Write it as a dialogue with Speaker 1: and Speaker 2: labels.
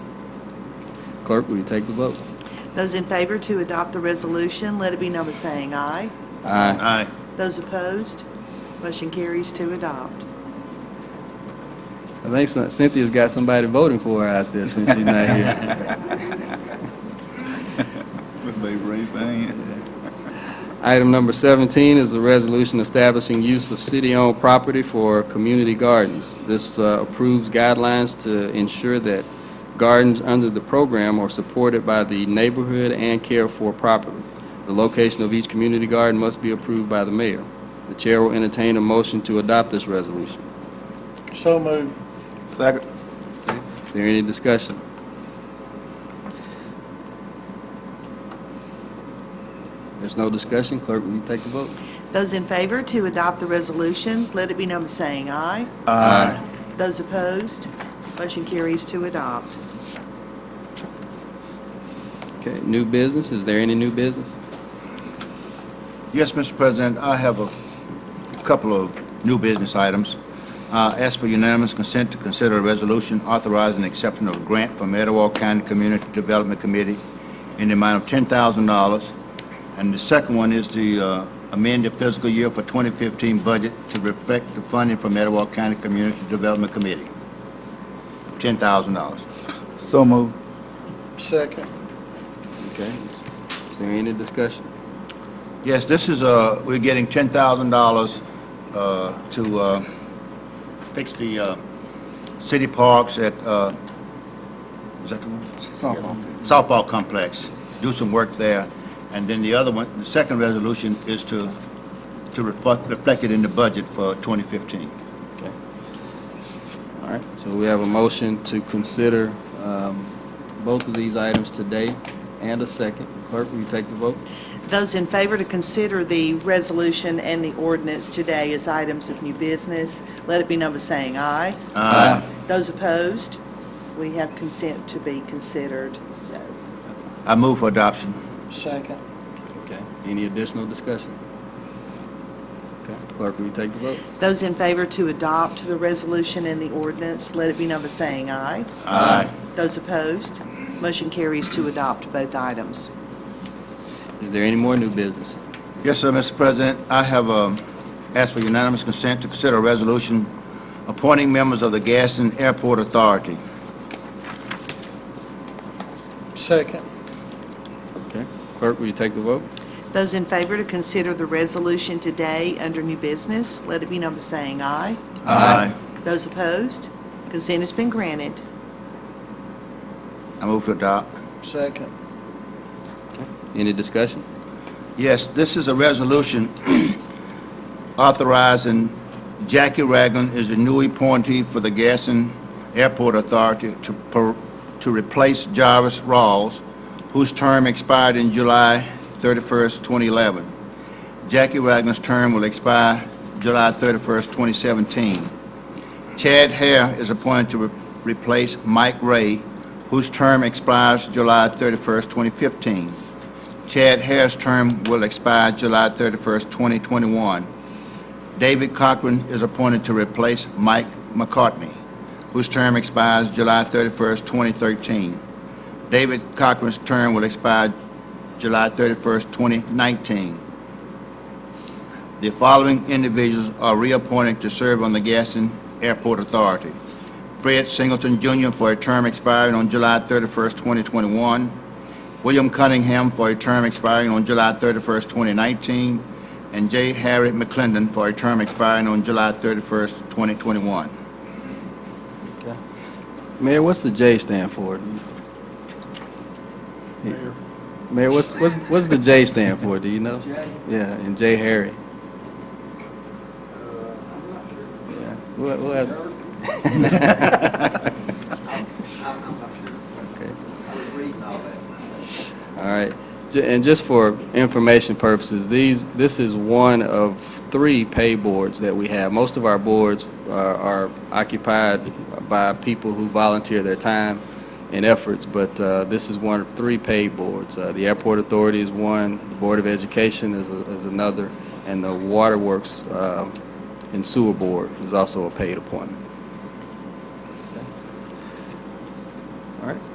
Speaker 1: Clerk, will you take the vote?
Speaker 2: Those in favor to adopt the resolution, let it be known by saying aye.
Speaker 1: Aye.
Speaker 3: Aye.
Speaker 2: Those opposed, motion carries to adopt.
Speaker 1: I think Cyn- Cynthia's got somebody voting for her out there since she's not here.
Speaker 3: Everybody raise their hand.
Speaker 1: Item number 17 is a resolution establishing use of city-owned property for community gardens. This uh, approves guidelines to ensure that gardens under the program are supported by the neighborhood and cared for properly. The location of each community garden must be approved by the mayor. The chair will entertain a motion to adopt this resolution.
Speaker 4: So moved.
Speaker 3: Second.
Speaker 1: Is there any discussion? There's no discussion. Clerk, will you take the vote?
Speaker 2: Those in favor to adopt the resolution, let it be known by saying aye.
Speaker 1: Aye.
Speaker 2: Those opposed, motion carries to adopt.
Speaker 1: Okay, new business. Is there any new business?
Speaker 5: Yes, Mr. President, I have a couple of new business items. Uh, Ask for unanimous consent to consider a resolution authorizing acceptance of a grant from Etowah County Community Development Committee in the amount of $10,000. And the second one is to uh, amend the fiscal year for 2015 budget to reflect the funding from Etowah County Community Development Committee, $10,000.
Speaker 3: So moved.
Speaker 4: Second.
Speaker 1: Okay. Is there any discussion?
Speaker 5: Yes, this is, uh, we're getting ten thousand dollars, uh, to, uh, fix the, uh, city parks at, uh, is that the one? Softball complex, do some work there. And then the other one, the second resolution is to, to reflect, reflect it in the budget for twenty fifteen.
Speaker 1: Okay. All right, so we have a motion to consider um, both of these items today and a second. Clerk, will you take the vote?
Speaker 2: Those in favor to consider the resolution and the ordinance today as items of new business, let it be known by saying aye.
Speaker 5: Aye.
Speaker 2: Those opposed, we have consent to be considered, so.
Speaker 5: I move for adoption.
Speaker 4: Second.
Speaker 1: Okay. Any additional discussion? Okay. Clerk, will you take the vote?
Speaker 2: Those in favor to adopt the resolution and the ordinance, let it be known by saying aye.
Speaker 5: Aye.
Speaker 2: Those opposed, motion carries to adopt both items.
Speaker 1: Is there any more new business?
Speaker 5: Yes, sir, Mr. President. I have um, asked for unanimous consent to consider a resolution appointing members of the Gaston Airport Authority.
Speaker 4: Second.
Speaker 1: Okay. Clerk, will you take the vote?
Speaker 2: Those in favor to consider the resolution today under new business, let it be known by saying aye.
Speaker 5: Aye.
Speaker 2: Those opposed, consent has been granted.
Speaker 5: I move to adopt.
Speaker 4: Second.
Speaker 1: Any discussion?
Speaker 5: Yes, this is a resolution authorizing Jackie Ragland as the new appointee for the Gaston Airport Authority to per- to replace Jarvis Rawls, whose term expired in July 31st, 2011. Jackie Ragland's term will expire July 31st, 2017. Chad Hare is appointed to re- replace Mike Ray, whose term expires July 31st, 2015. Chad Harris' term will expire July 31st, 2021. David Cochran is appointed to replace Mike McCartney, whose term expires July 31st, 2013. David Cochran's term will expire July 31st, 2019. The following individuals are reappointed to serve on the Gaston Airport Authority. Fred Singleton Jr. for a term expiring on July 31st, 2021. William Cunningham for a term expiring on July 31st, 2019, and J. Harry McClendon for a term expiring on July 31st, 2021.
Speaker 1: Mayor, what's the J stand for?
Speaker 4: Mayor.
Speaker 1: Mayor, what's, what's, what's the J stand for, do you know?
Speaker 4: J? Uh,
Speaker 1: Yeah, and J Harry. Yeah, we'll, we'll have. Okay. All right, Ju- and just for information purposes, these, this is one of three pay boards that we have. Most of our boards are- are occupied by people who volunteer their time and efforts, but uh, this is one of three pay boards. Uh, The Airport Authority is one, the Board of Education is a- is another, and the Waterworks uh, and Sewer Board is also a paid appointment. All right.